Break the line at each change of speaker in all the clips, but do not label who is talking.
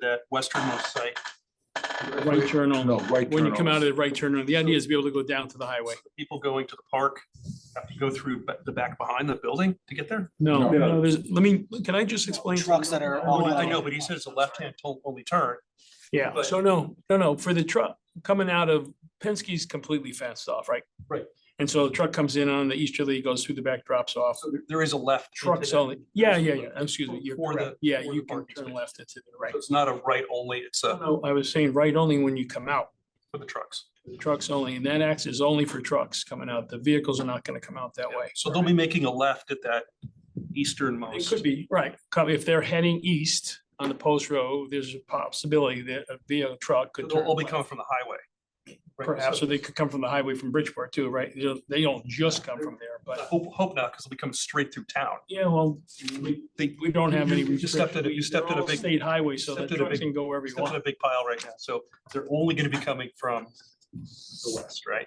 that westernmost site.
Right turn
No,
only.
right.
When you
turn
come out of
only.
the right turn, only. the idea is to be able to go down to the highway.
People going to the park have to go through ba- the back behind the building to get there.
No,
No.
no, there's, let me, can I just explain?
Trucks that are
Oh,
all-
I know, but he said it's a left-hand to- only turn.
Yeah,
but-
so no, no, no, for the truck coming out of Penske's completely fenced off, right?
Right.
And so the truck comes in on the easterly, goes through the back, drops off.
So there- there is a left. into
Trucks
that.
only, yeah, yeah, yeah, excuse me,
For-
you're
for the-
correct. Yeah,
for the
you can
parking
turn
space.
left into the right.
So it's not a right only, it's a
No, I was saying right only when you come out,
for the trucks.
trucks only, and that acts is only for trucks coming out. The vehicles are not gonna come out that way.
So they'll be making a left at that
It
easternmost.
could be, right, come- if they're heading east on the post road, there's a possibility that a vehicle truck could
They'll
turn
all be coming
left.
from the highway. Right, so-
Perhaps, or they could come from the highway from Bridgeport too, right? They don't- They don't just come from there,
I
but,
hope, hope not, because they'll be coming straight through town.
yeah, well,
We- They
we don't have any.
You just stepped in a- you
restrictions.
stepped in a
They're all
big-
State highway, so the
stepped in a
trucks
big-
can go wherever you
stepped in a
want.
big pile right now, so they're only gonna be coming from the west, right?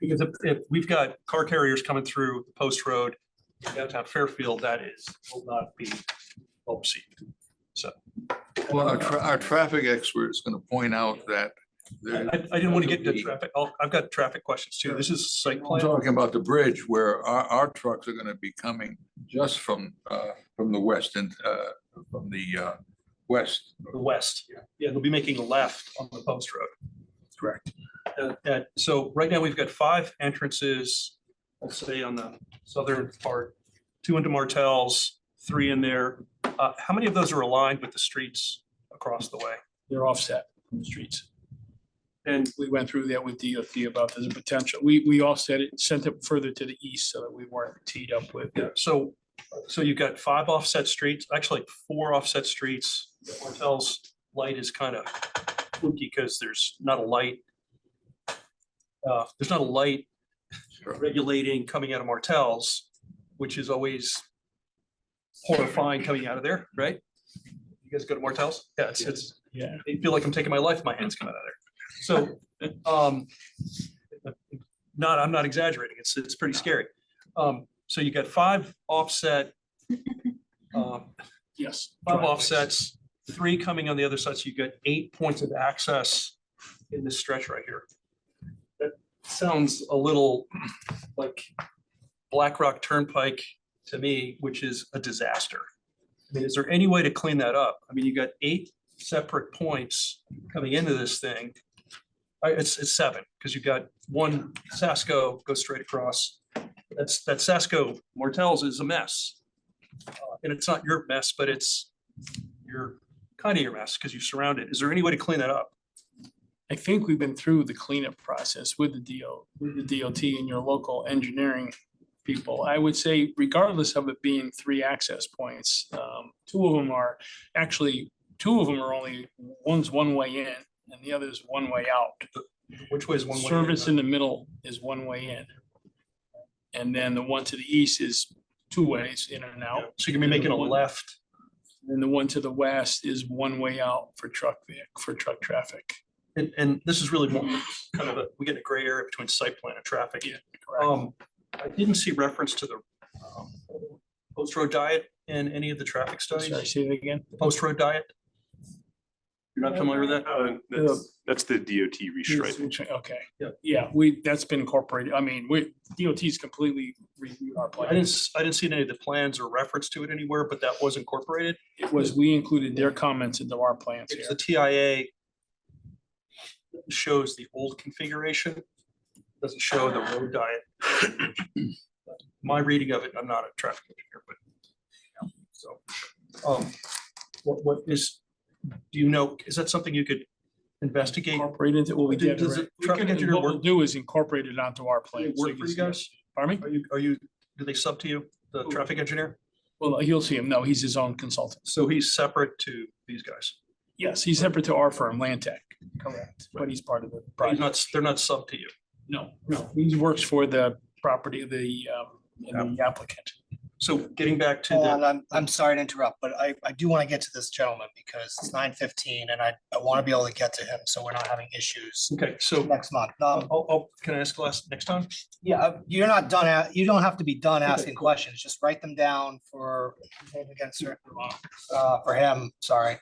Because if, if we've got car carriers coming through the post road downtown Fairfield, that is, will not be well received.
Well, our, tra- our traffic expert is gonna point out that
I,
there,
I- I didn't want to get to traffic, I'll- I've got traffic questions too, this is site
I'm
plan.
talking about the bridge where our, our trucks are gonna be coming just from, uh, from the west and, uh, from the, uh, west.
the west. Yeah, they'll be making a left on the post road. Correct. so right now, we've got five entrances, let's say on the southern part, two into Martell's, three in there. Uh, How many of those are aligned with the streets across the way?
They're offset from the streets.
And
We went through that with DOT about the potential. We, we offset it, sent it further to the east so that we weren't teed up with.
so, so you've got five offset streets, actually four offset streets. Martell's light is kind of spooky because there's not a light. uh, There's not a light regulating coming out of Martell's, which is always horrifying coming out of there, right? You guys go to Martell's? Yeah, it's, it's,
Yeah.
I feel like I'm taking my life, in my hands coming out of there. So, um, not, I'm not exaggerating. It's, it's pretty scary. Um, so you got five offset, um,
Yes.
five
driveways.
offsets, three coming on the other side, so you got eight points of access in this stretch right here. That sounds a little like Black Rock Turnpike to me, which is a disaster. I mean, is there any way to clean that up? I mean, you got eight separate points coming into this thing. Uh, It's, it's seven, because you've got one Sasco goes straight across. That's, that Sasco Martell's is a mess Uh, and it's not your mess, but it's your, kind of your mess because you surround it. Is there any way to clean that up?
I think we've been through the cleanup process with the DO, with the DOT and your local engineering people. I would say regardless of it being three access points, um, two of them are, actually, two of them are only, one's one way in and the other's one way out.
Which way is one way? in?
Service in the middle is one way in. And then the one to the east is two ways in and out.
So you're gonna be making a left.
And the one to the west is one way out for truck, vehi- for truck traffic.
And, and this is really more kind of a, we get a gray area between site plan and traffic.
Yeah,
Um, I didn't see reference to the um, post road diet in any of the traffic
Sorry,
studies,
say that again?
post road diet. You're not familiar with that?
Uh, That's, that's the DOT restriping.
Yes, which- Okay,
Yeah.
yeah, we, that's been incorporated. I mean, we, DOT's completely reviewed our
I didn't,
plan.
s- I didn't see any of the plans or reference to it anywhere, but that was incorporated.
It was, we included their comments into our plans
It's
here.
the TIA shows the old configuration, doesn't show the road diet. My reading of it, I'm not a traffic engineer, but you know, so, um, what, what is, do you know, is that something you could investigate?
Incorporated into what we
Did-
did.
does
already.
it-
We
traffic
can-
engineer
What we'll
work-
do is incorporate it onto our plan. so
Work for you
can see it.
guys?
Pardon me?
Are you, are you, do they sub to you, the traffic engineer?
Well, uh, you'll see him. No, he's his own consultant.
So he's separate to these guys.
Yes, he's separate to our firm, Land Tech. Correct. But he's part of the
He's
project.
not, they're not sub to you.
No, no, he works for the property, the, um, the applicant.
So getting back to
Hold
the.
on, I'm, I'm sorry to interrupt, but I, I do want to get to this gentleman because it's nine fifteen and I, I want to be able to get to him, so we're not having issues
Okay, so,
next month.
oh,
Um,
oh, can I ask last, next time?
yeah, uh, you're not done, a- you don't have to be done
Okay,
asking questions, just write them down for, against, uh, for him, sorry.